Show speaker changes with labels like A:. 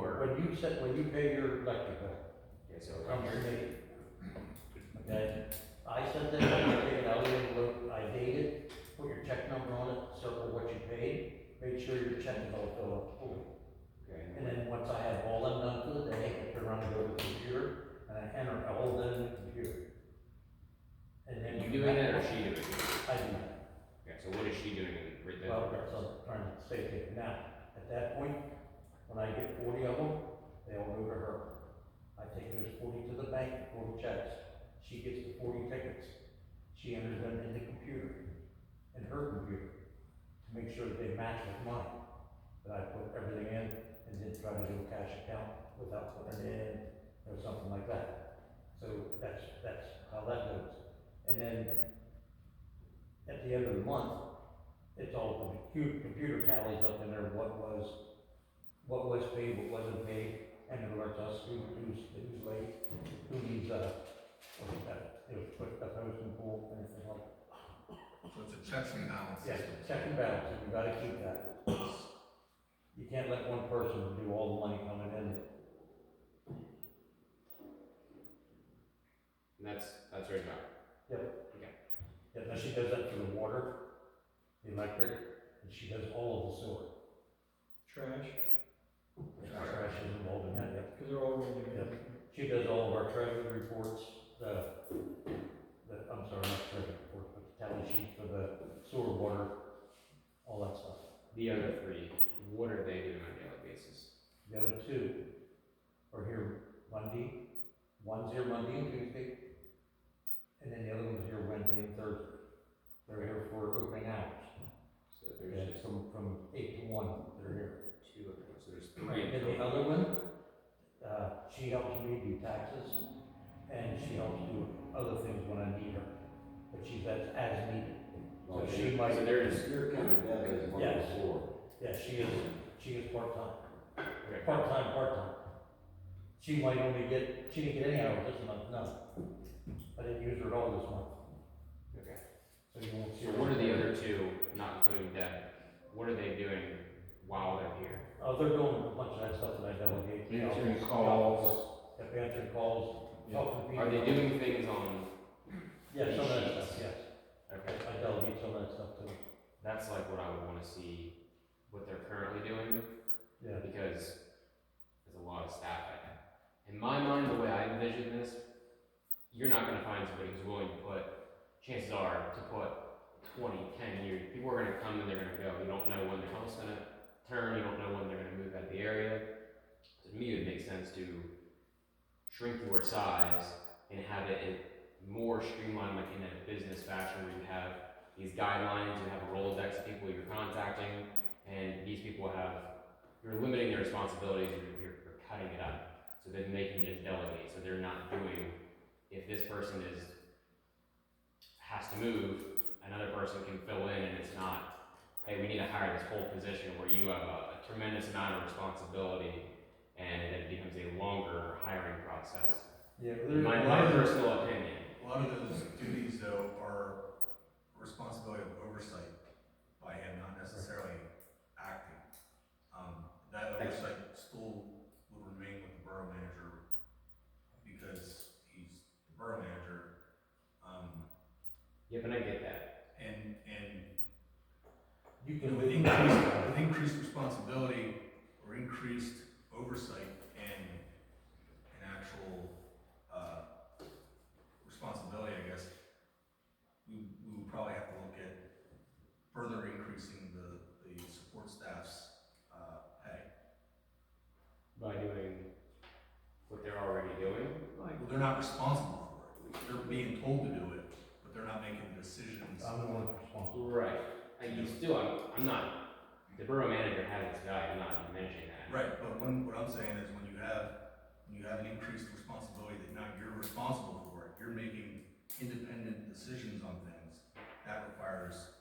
A: percent when you pay your electric bill,
B: Yes, sir.
A: comes to me. Okay, I sent that letter, I it out, and wrote, I dated, put your check number on it, circle what you paid, make sure your check is all filled out fully.
B: Okay.
A: And then once I have all them done for the day, I turn around and go to the computer, and I enter all of them in the computer. And then.
B: You doing that or she doing it?
A: I do that,
B: Okay, so what is she doing in the, right then?
A: well, that's what I'm trying to say to you. Now, at that point, when I get forty of them, they all go to her. I take those forty to the bank, forty checks, she gets the forty tickets, she enters them in the computer, in her computer, to make sure that they match with mine. That I put everything in and didn't try to do a cash account without putting it in or something like that. So that's, that's how that goes. And then at the end of the month, it's all, the compu- computer tallies up in there, what was, what was paid, what wasn't paid, and it alerts us who, who's, who's late, who needs, uh, what's that, you know, put a hose in the pool, anything like that.
C: So it's a checks and balances.
A: Yes, check and balance, you gotta keep that. You can't let one person do all the money coming in.
B: And that's, that's right now.
A: Yeah, now she does that for the water, the electric, and she does all of the sewer.
D: Trash,
A: The Trash is involved in that, yeah.
D: because they're all going to be.
A: She does all of our treasury reports, the, the, I'm sorry, not treasury report, but the tally sheet for the sewer water, all that stuff.
B: The other three, what are they doing on a daily basis?
A: The other two are here Monday, one's here Monday and Tuesday, and then the other one's here Wednesday and Thursday. They're here for opening hours,
B: So
A: yeah,
B: there's just
A: from, from eight to one, they're here.
B: two of them, so there's
A: And
B: three.
A: the other one, uh, she helps me do taxes, and she helps do other things when I need her, but she's as, as needed. So she might,
B: Oh, So there's,
E: You're counting that as one
A: Yes.
E: of four.
A: yeah, she is, she is part-time,
B: okay,
A: part-time, part-time. She might only get, she didn't get any hours this month, none. I didn't use her at all this month,
B: okay.
A: so you won't see
B: So
A: her.
B: what are the other two, not including Deb, what are they doing while they're here?
A: Oh, they're doing a bunch of that stuff that I delegate.
E: Answering calls.
A: Yeah, answering calls, helping people.
B: Are they doing things on,
A: Yeah, some of that stuff, yes,
B: okay,
A: I delegate some of that stuff too,
B: that's like what I would wanna see, what they're currently doing,
A: yeah.
B: because there's a lot of staff I have. In my mind, the way I envision this, you're not gonna find somebody who's willing to put, chances are, to put 20, 10 years. People are gonna come and they're gonna go. You don't know when their home's gonna turn, you don't know when they're gonna move out of the area. To me, it would make sense to shrink your size and have it in more streamlined, like in a business fashion where you have these guidelines, you have a Rolodex of people you're contacting, and these people have you're limiting their responsibilities, you're, you're, you're cutting it up. So then they can just delegate, so they're not doing, if this person is, has to move, another person can fill in and it's not, hey, we need to hire this whole position where you have a a tremendous amount of responsibility and it becomes a longer hiring process.
A: Yeah, there,
B: My, my personal opinion,
C: A lot of those duties though are responsibility of oversight by him, not necessarily acting. Um, that oversight still would remain with the borough manager because he's the borough manager. Um,
B: yeah, but I get that.
C: and, and
A: you
C: You know,
A: can
C: with
A: leave.
C: increased, with increased responsibility or increased oversight and an actual, uh, responsibility, I guess, we, we would probably have to look at further increasing the, the support staff's, uh, pay.
B: By doing what they're already doing,
C: Well, they're not responsible for it, they're being told to do it, but they're not making the decisions.
A: I'm the one responsible.
B: Right. I you still, I'm, I'm not, the borough manager has its value, I'm not diminishing that.
C: Right, but when, what I'm saying is when you have, when you have an increased responsibility that now you're responsible for it, you're making independent decisions on things, that requires
B: um,